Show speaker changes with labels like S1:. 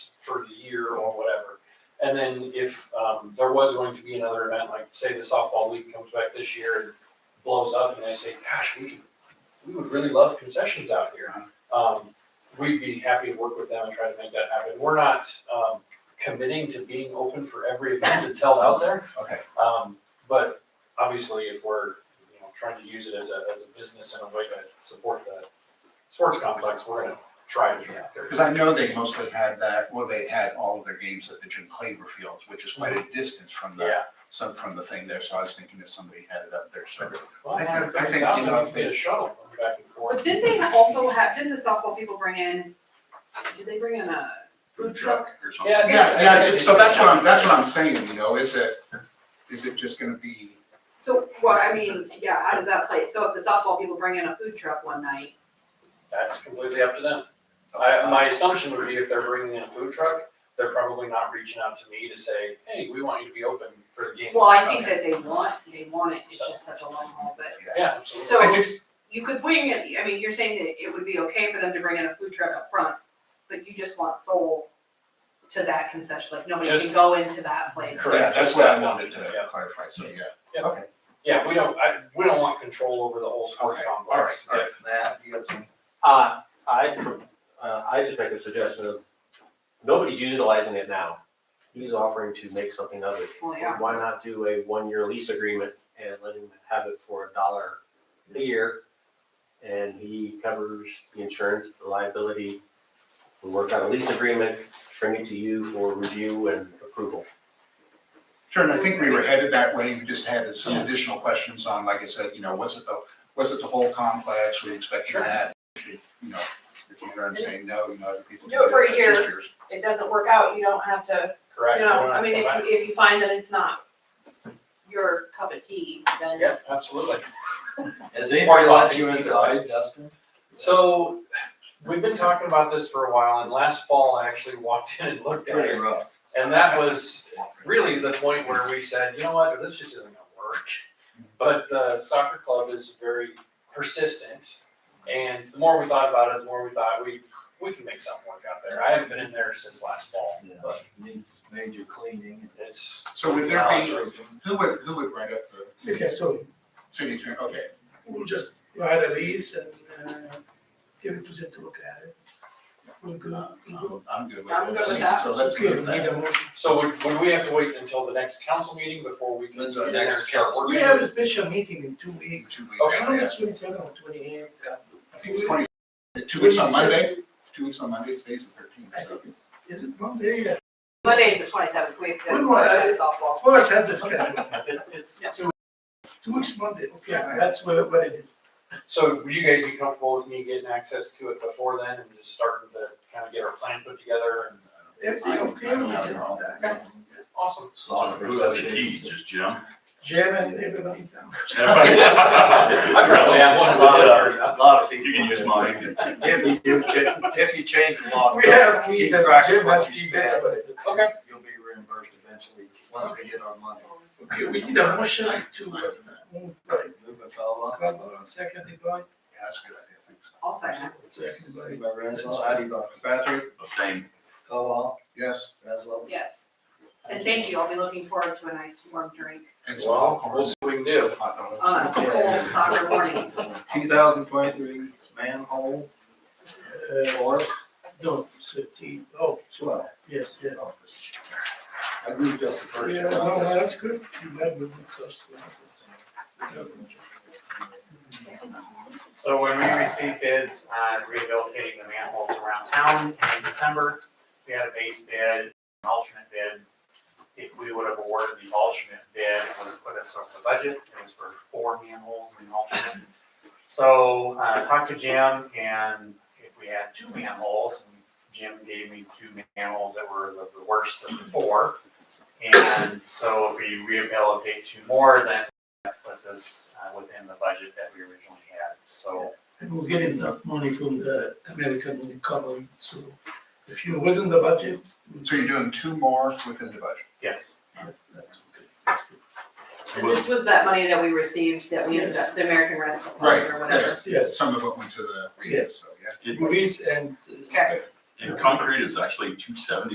S1: for the year or whatever. And then if, um, there was going to be another event, like say the softball league comes back this year and blows up and they say, gosh, we, we would really love concessions out here. Um, we'd be happy to work with them and try to make that happen. We're not, um, committing to being open for every event that's held out there.
S2: Okay,
S1: Um, but obviously, if we're, you know, trying to use it as a, as a business and a way to support the sports complex, we're gonna try to track there.
S2: because I know they mostly had that, well, they had all of their games at the Jim Claver Fields, which is quite a distance from the,
S1: Yeah.
S2: some, from the thing there, so I was thinking if somebody had it up there, so.
S1: Well,
S2: I think- I think, you
S1: 130,000,
S2: know,
S1: we could Get a shuttle going back and forth.
S3: But didn't they also have, didn't the softball people bring in, did they bring in a food truck?
S2: or
S1: something. Yeah, I think so.
S2: Yeah, yeah, so- so that's what I'm, that's what I'm saying, you know, is it, is it just gonna be,
S3: So, well, I mean, yeah, how does that play? So if the softball people bring in a food truck one night,
S1: That's completely up to them. I, my assumption would be if they're bringing in a food truck, they're probably not reaching out to me to say, hey, we want you to be open for the game.
S3: well, I think that they want, they want it, it's just such a long haul, but
S1: Yeah, absolutely.
S3: So-
S2: I just,
S3: you could wing it, I mean, you're saying that it would be okay for them to bring in a food truck up front, but you just want sold to that concession, like nobody
S1: Just-
S3: can go into that place.
S1: Correct,
S2: yeah, that's
S1: just
S2: what I
S1: that
S2: wanted
S1: one,
S2: to
S1: yeah.
S2: clarify, so, yeah.
S1: Yeah.
S2: Okay,
S1: Yeah, we don't, I, we don't want control over the whole sports
S2: Okay, all
S1: complex.
S2: right, all right.
S4: Matt, you got some? Uh, I, uh, I just make a suggestion of, nobody's utilizing it now. He's offering to make something of it.
S3: Well, yeah.
S4: Why not do a one-year lease agreement and let him have it for a dollar a year? And he covers the insurance, the liability. We work out a lease agreement, bring it to you for review and approval.
S2: Sure, and I think we were headed that way, we just had some
S1: Yeah.
S2: additional questions on, like I said, you know, was it the, was it the whole complex, were you expecting
S5: Sure.
S2: that? Should, You know, if you're gonna say no, you know, other people.
S5: Do it for a
S2: can
S5: year.
S2: that, just yours.
S5: it doesn't work out, you don't have to,
S1: Correct.
S5: you know, I mean, if, you- if you find that it's not your cup of tea, then.
S1: Yeah, absolutely.
S6: Has
S1: Mark
S6: anybody let
S1: Hoffman.
S6: you inside, Dustin?
S1: So we've been talking about this for a while and last fall I actually walked in and looked at
S6: Pretty
S1: it.
S6: rough.
S1: And that was really the point where we said, you know what, this just isn't gonna work. But the soccer club is very persistent. And the more we thought about it, the more we thought we, we can make something work out there. I haven't been in there since last fall,
S6: Yeah.
S1: but
S6: Needs major cleaning.
S1: it's,
S2: So would there be, who would, who would write up the
S7: Okay, so
S2: city attorney, okay,
S7: we'll just write a lease and uh, give it to them to look at it. We'll go.
S2: I'm I'm good with that.
S5: I'm good with that.
S2: So let's
S7: Okay,
S2: give
S7: we need
S2: that.
S7: a motion.
S1: so would, would we have to wait until the next council meeting before we can?
S6: When's our
S1: get in there and
S6: next
S1: start
S6: council
S1: working?
S7: We have a special meeting in two
S2: in
S7: weeks.
S2: two weeks.
S1: Okay.
S7: I
S2: Yeah.
S7: think it's twenty-seven or twenty-eight. uh,
S2: I think it's twenty, two weeks on Monday, two weeks on Monday, today's the thirteenth,
S7: I
S2: so.
S7: think, is it Monday? Yeah.
S5: Monday's the twenty-seventh, we have to,
S7: We want-
S5: that's softball.
S7: Of course, that's the schedule.
S4: It's, it's.
S7: Two weeks Monday, okay, that's where, where it is.
S1: So would you guys be comfortable with me getting access to it before then and just starting to kind of get our plan put together and?
S7: Everything
S2: I don't-
S7: okay?
S2: I don't
S7: we
S2: have
S7: can
S2: a
S7: do
S2: problem.
S7: that.
S1: Awesome.
S8: Who has the keys, just Jim?
S7: Jim and everybody.
S1: I probably have one.
S6: A lot of, a lot of people.
S8: You can use mine.
S6: If you, do cha- if you change the law.
S7: We have keys
S6: keep
S7: and
S6: track of
S7: Jim
S6: what
S7: has
S6: you
S7: keys
S6: spend.
S7: there, but.
S1: Okay.
S6: You'll be reimbursed eventually, once we get our money.
S7: Okay, we need a motion to uh, move by
S6: Move it, fella.
S7: Calvo, seconded by,
S2: Yeah, that's a good idea, thanks.
S5: I'll second.
S7: seconded by
S6: By Renzo, how do you vote? Patrick,
S8: Abstain.
S6: Cobal,
S2: Yes,
S6: Renzo.
S5: Yes. And thank you, I'll be looking forward to a nice warm drink
S2: and some alcohol.
S1: We'll see what we can do.
S2: Hot dogs.
S5: on a cold soccer morning.
S6: Two thousand twenty-three manhole
S7: Uh,
S6: forest.
S7: no, thirteen, oh,
S6: Slow.
S7: yes, yeah.
S6: I agree with just the first.
S7: Yeah, no, no, that's good. You might be the first one.
S9: So when we received bids on rehabilitating the manholes around town in December, we had a base bid, an alternate bid. If we would have awarded the alternate bid, it would have put us over the budget, it was for four manholes in the alternate. So uh, I talked to Jim and if we had two manholes, and Jim gave me two manholes that were the- the worst of the four. And so if we rehabilitate two more, then that puts us uh, within the budget that we originally had. So
S7: And we'll get enough money from the American recovery, so if you wasn't the budget. we'll-
S2: So you're doing two more within the budget?
S9: Yes.
S7: Yeah, that's okay, that's good.
S5: And this was that money that we received, that we, that the American Rescue Fund or whatever.
S7: Yes, yes,
S2: Some of it went to the region, so yeah.
S8: It-
S7: police and. uh,
S5: Okay.
S8: And concrete is actually two seventy